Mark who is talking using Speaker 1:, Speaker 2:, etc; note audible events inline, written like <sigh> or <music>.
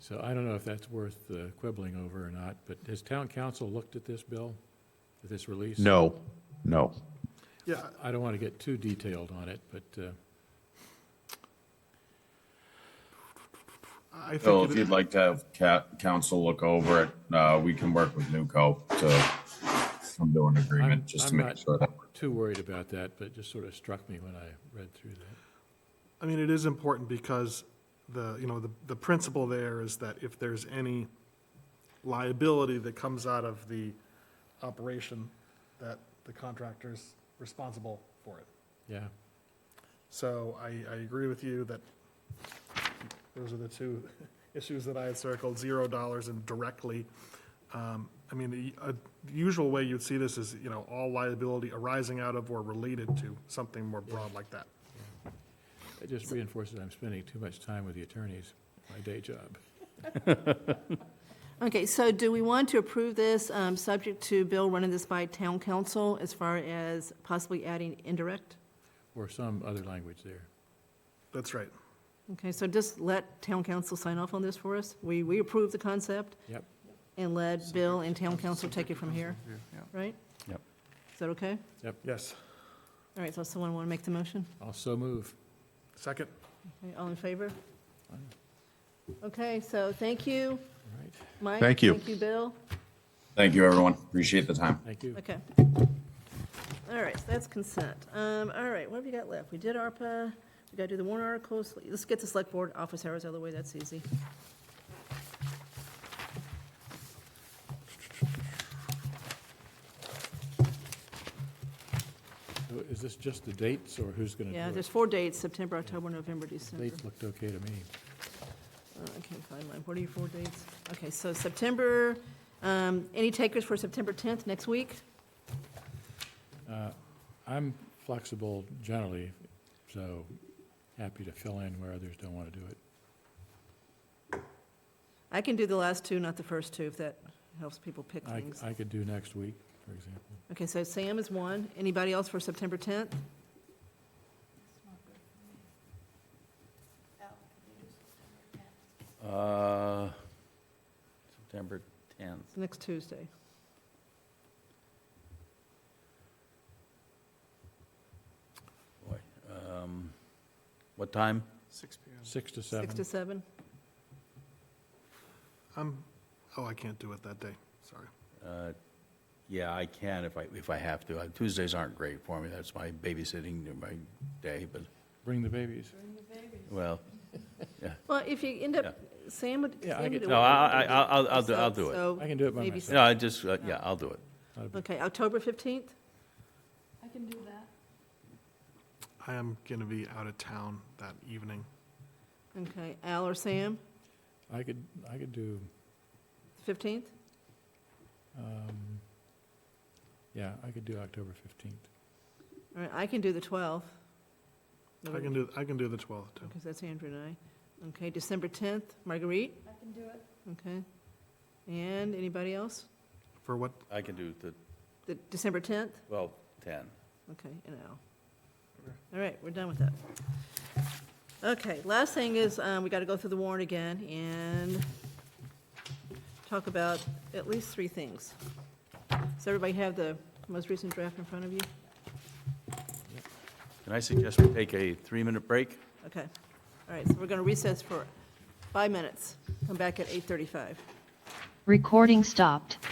Speaker 1: So I don't know if that's worth uh, quibbling over or not, but has town council looked at this bill, at this release?
Speaker 2: No, no.
Speaker 3: Yeah,
Speaker 1: I don't want to get too detailed on it, but uh,
Speaker 3: I
Speaker 4: Oh,
Speaker 5: So
Speaker 3: think,
Speaker 5: if
Speaker 3: it-
Speaker 5: you'd like to have ca- council look over it, uh, we can work with Newco to come to an
Speaker 1: I'm-
Speaker 5: agreement, just to
Speaker 1: I'm
Speaker 5: make
Speaker 1: not-
Speaker 5: sure that.
Speaker 1: too worried about that, but it just sort of struck me when I read through that.
Speaker 3: I mean, it is important because the, you know, the, the principle there is that if there's any liability that comes out of the operation, that the contractor's responsible for it.
Speaker 1: Yeah,
Speaker 3: So I, I agree with you that those are the two <laughs> issues that I had circled, zero dollars and directly. Um, I mean, the uh, usual way you'd see this is, you know, all liability arising out of or related to something more broad like that.
Speaker 1: it just reinforces I'm spending too much time with the attorneys, my day job.
Speaker 6: Okay, so do we want to approve this, um, subject to Bill running this by town council as far as possibly adding indirect?
Speaker 1: Or some other language there.
Speaker 3: That's right.
Speaker 6: Okay, so just let town council sign off on this for us. We, we approve the concept
Speaker 1: Yep,
Speaker 6: and let Bill and town council take it from here, right?
Speaker 2: Yep.
Speaker 6: Is that okay?
Speaker 3: Yes.
Speaker 6: All right, so someone want to make the motion?
Speaker 1: I'll so move.
Speaker 3: Second?
Speaker 6: Okay, All in favor? Okay, so thank you,
Speaker 1: All right,
Speaker 6: Mike.
Speaker 2: Thank you.
Speaker 6: Thank you, Bill.
Speaker 5: Thank you, everyone. Appreciate the time.
Speaker 1: thank you.
Speaker 6: Okay. All right, so that's consent. Um, all right, what have we got left? We did ARPA, we gotta do the warrant articles. Let's get the select board office hours out of the way, that's easy.
Speaker 1: So Is this just the dates or who's going to do it?
Speaker 6: Yeah, there's four dates, September, October, November, December.
Speaker 1: Dates looked okay to me.
Speaker 6: Uh, I can't find mine. What are your four dates? Okay, so September, um, any takers for September tenth, next week?
Speaker 1: I'm flexible generally, so happy to fill in where others don't want to do it.
Speaker 6: I can do the last two, not the first two, if that helps people pick
Speaker 1: I,
Speaker 6: things.
Speaker 1: I could do next week, for example.
Speaker 6: Okay, so Sam is one. Anybody else for September tenth?
Speaker 4: Uh, September 10th.
Speaker 6: Next Tuesday.
Speaker 4: Boy, um, What time?
Speaker 3: Six PM.
Speaker 1: Six to seven.
Speaker 6: Six to seven?
Speaker 3: I'm, oh, I can't do it that day, sorry.
Speaker 4: Uh, Yeah, I can if I, if I have to. Uh, Tuesdays aren't great for me. That's my babysitting, my day, but,
Speaker 1: Bring the babies.
Speaker 4: well,
Speaker 6: Well, if you end up, Sam would,
Speaker 1: Yeah, I
Speaker 6: Sam would
Speaker 1: get-
Speaker 6: do
Speaker 4: no,
Speaker 6: it.
Speaker 4: I, I, I'll, I'll do, I'll do it.
Speaker 6: So,
Speaker 1: I can do it by
Speaker 6: maybe
Speaker 1: myself.
Speaker 4: No, I just, uh, yeah, I'll do it.
Speaker 1: Not a big-
Speaker 6: Okay, October 15th?
Speaker 7: I can do that.
Speaker 3: I am going to be out of town that evening.
Speaker 6: Okay, Al or Sam,
Speaker 1: I could, I could do,
Speaker 6: 15th?
Speaker 1: um, yeah, I could do October fifteenth.
Speaker 6: All right, I can do the 12th.
Speaker 3: I can do, I can do the 12th, too.
Speaker 6: Because that's Andrew and I. Okay, December 10th, Marguerite,
Speaker 7: I can do it.
Speaker 6: okay. And anybody else?
Speaker 3: For what,
Speaker 4: I can do the,
Speaker 6: The December 10th?
Speaker 4: well, 10.
Speaker 6: Okay, and Al. All right, we're done with that. Okay, last thing is, um, we got to go through the warrant again and talk about at least three things. Does everybody have the most recent draft in front of you?
Speaker 4: Can I suggest we take a three-minute break?
Speaker 6: Okay, all right, so we're going to recess for five minutes, come back at 8:35.
Speaker 8: Recording stopped.